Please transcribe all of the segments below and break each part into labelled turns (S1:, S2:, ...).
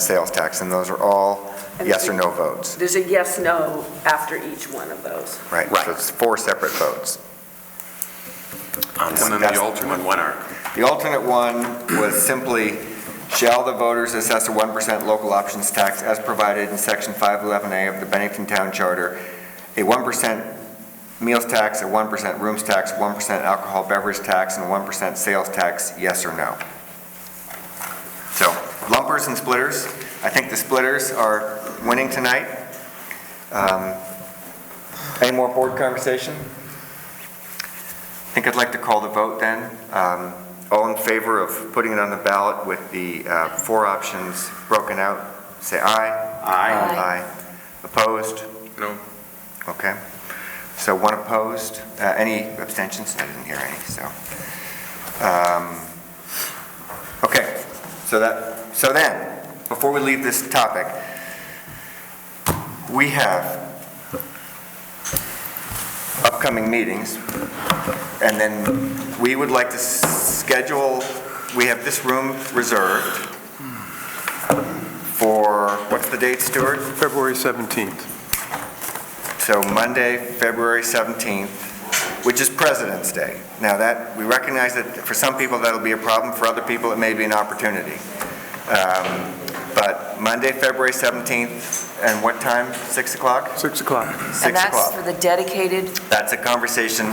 S1: sales tax, and those are all yes or no votes,
S2: There's a yes, no after each one of those.
S1: right? So it's four separate votes.
S3: On
S1: one-
S3: one,
S1: That's-
S3: on one article.
S1: The alternate one was simply, shall the voters assess a 1% local options tax as provided in Section 511A of the Bennington Town Charter, a 1% meals tax, a 1% rooms tax, 1% alcohol beverage tax, and 1% sales tax, yes or no? So lumpers and splitters, I think the splitters are winning tonight. Um, Any more board conversation? I think I'd like to call the vote then. Um, All in favor of putting it on the ballot with the uh, four options broken out, say aye.
S4: Aye.
S1: Aye. Opposed?
S3: No.
S1: Okay. So one opposed. Uh, Any abstentions? I didn't hear any, so. um, Okay, so that, so then, before we leave this topic, we have upcoming meetings, and then we would like to s- schedule, we have this room reserved for, what's the date, Stuart?
S5: February 17th.
S1: So Monday, February 17th, which is President's Day. Now that, we recognize that for some people that'll be a problem, for other people it may be an opportunity. Um, But Monday, February 17th, and what time? 6 o'clock?
S5: 6 o'clock.
S1: 6
S4: And that's for
S1: o'clock.
S4: the dedicated,
S1: That's a conversation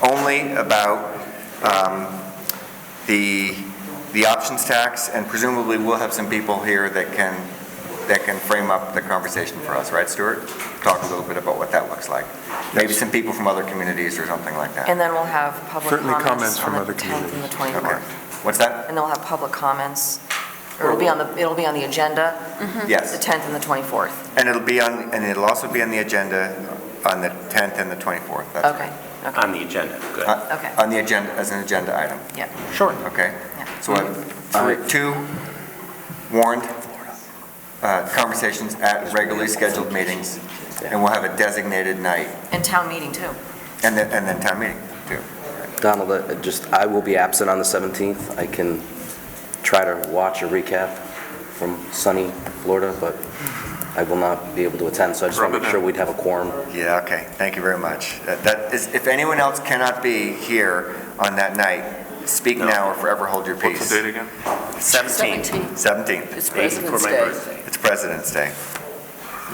S1: only about um, the, the options tax, and presumably we'll have some people here that can, that can frame up the conversation for us, right, Stuart? Talk a little bit about what that looks like. Maybe some people from other communities or something like that.
S4: and then we'll have public
S5: Certainly comments
S4: comments
S5: from
S4: on the
S5: other
S4: 10th and the
S5: communities.
S4: 24th.
S1: What's that?
S4: And they'll have public comments. It'll be on the, it'll be on the agenda, the
S1: Yes.
S4: 10th and the 24th.
S1: And it'll be on, and it'll also be on the agenda on the 10th and the 24th. That's-
S4: Okay,
S3: On the agenda, good.
S1: Uh,
S4: okay,
S1: On the agenda, as an agenda item,
S4: yeah.
S3: Sure.
S1: okay?
S4: Yeah.
S1: So I have three- two warned uh, conversations at regularly scheduled meetings, and we'll have a designated night,
S4: And town meeting, too.
S1: and then, and then town meeting, too.
S6: Donald, uh, just, I will be absent on the 17th. I can try to watch a recap from sunny Florida, but I will not be able to attend, so I just want to make sure we'd have a quorum.
S1: Yeah, okay, thank you very much. That- That is, if anyone else cannot be here on that night, speak
S3: No.
S1: now or forever hold your peace.
S5: What's the date again?
S3: 17,
S1: 17th.
S2: It's
S3: day before
S2: President's
S3: my
S2: Day.
S3: birthday.
S1: It's President's Day.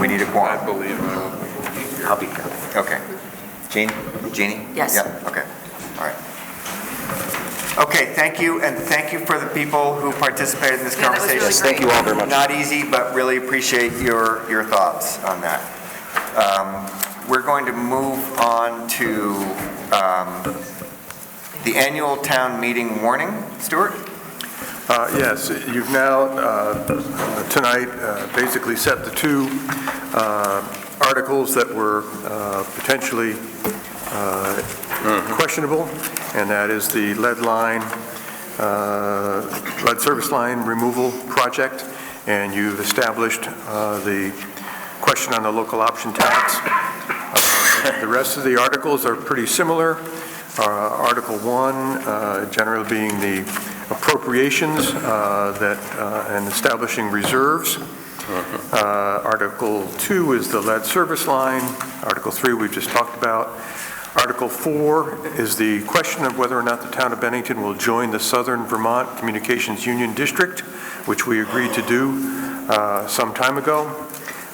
S1: We need a quorum.
S3: believe I will be here. I'll be here.
S1: Okay. Jean, Jeannie?
S4: Yes.
S1: Yep, okay, all right. Okay, thank you, and thank you for the people who participated in this
S4: Yeah, that was really
S1: conversation.
S4: Yes, thank
S6: you all very much.
S1: Not easy, but really appreciate your, your thoughts on that. Um, We're going to move on to um, the annual town meeting warning. Stuart?
S5: Uh, Yes, you've now, uh, tonight, uh, basically set the two uh, articles that were uh, potentially uh, questionable, and that is the lead line, uh, lead service line removal project, and you've established uh, the question on the local option tax. Uh, The rest of the articles are pretty similar. Uh, Article 1, uh, generally being the appropriations uh, that, uh, and establishing reserves. Uh, Article 2 is the lead service line. Article 3, we've just talked about. Article 4 is the question of whether or not the town of Bennington will join the Southern Vermont Communications Union District, which we agreed to do uh, some time ago.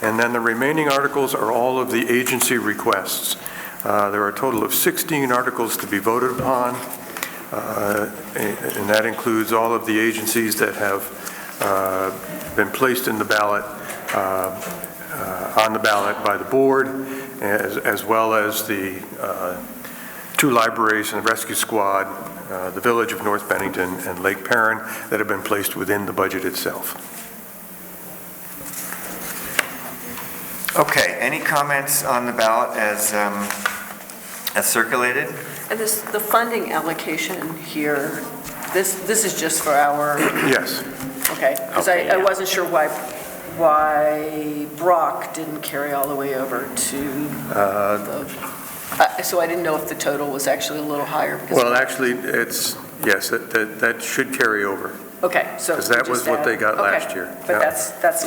S5: And then the remaining articles are all of the agency requests. Uh, There are a total of 16 articles to be voted upon, uh, and and that includes all of the agencies that have uh, been placed in the ballot, uh, uh, on the ballot by the board, as as well as the uh, two libraries and the rescue squad, uh, the Village of North Bennington and Lake Perrin, that have been placed within the budget itself.
S1: Okay, any comments on the ballot as, um, as circulated?
S2: And this, the funding allocation here, this, this is just for our,
S5: Yes.
S2: okay. Because I,
S3: Okay,
S2: I
S3: yeah.
S2: wasn't sure why, why Brock didn't carry all the way over to
S5: Uh,
S2: the, I- so I didn't know if the total was actually a little higher because.
S5: Well, actually, it's, yes, that, that that should carry over.
S2: Okay, so.
S5: Because that
S2: we just
S5: was what they
S2: add-
S5: got
S2: okay,
S5: last year.
S2: But
S5: Yeah.
S2: that's, that's